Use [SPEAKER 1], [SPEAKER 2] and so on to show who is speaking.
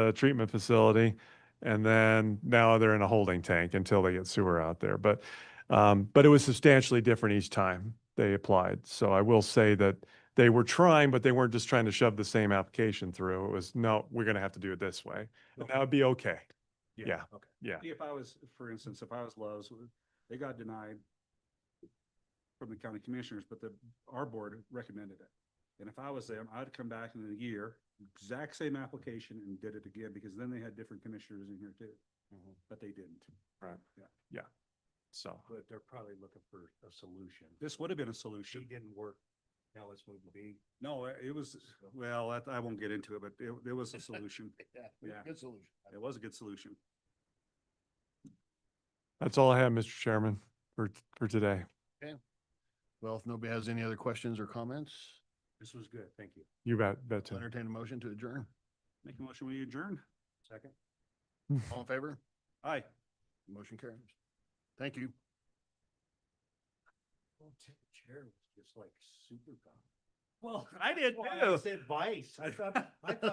[SPEAKER 1] uh, treatment facility. And then now they're in a holding tank until they get sewer out there. But, um, but it was substantially different each time they applied. So I will say that they were trying, but they weren't just trying to shove the same application through. It was, no, we're going to have to do it this way. And that would be okay. yeah,
[SPEAKER 2] Okay.
[SPEAKER 1] yeah.
[SPEAKER 2] If I was, for instance, if I was Lowe's, they got denied from the county commissioners, but the, our board recommended it. And if I was them, I'd come back in a year, exact same application and did it again, because then they had different commissioners in here too,
[SPEAKER 3] Mm-hmm.
[SPEAKER 2] but they didn't.
[SPEAKER 1] Right.
[SPEAKER 2] Yeah.
[SPEAKER 1] Yeah. So,
[SPEAKER 3] But they're probably looking for a solution.
[SPEAKER 2] This would have been a
[SPEAKER 3] She
[SPEAKER 2] solution.
[SPEAKER 3] didn't work, now let's move to B.
[SPEAKER 2] No, uh, it- it was, well, I- I won't get into it, but it, it was a solution. Yeah.
[SPEAKER 3] Good solution.
[SPEAKER 2] It was a good solution.
[SPEAKER 1] that's all I have, Mr. Chairman, for, for today.
[SPEAKER 4] Well, if nobody has any other questions or comments,
[SPEAKER 3] This was good, thank you.
[SPEAKER 1] You bet, bet.
[SPEAKER 4] I'll entertain a motion to adjourn.
[SPEAKER 2] Make a motion, we adjourn.
[SPEAKER 3] Second?
[SPEAKER 4] All in favor?
[SPEAKER 2] Aye.
[SPEAKER 4] Motion carries. Thank you.
[SPEAKER 3] Oh, Tim, Chair was just like super calm.
[SPEAKER 2] Well, I did
[SPEAKER 3] Well, I said vice, I thought, I thought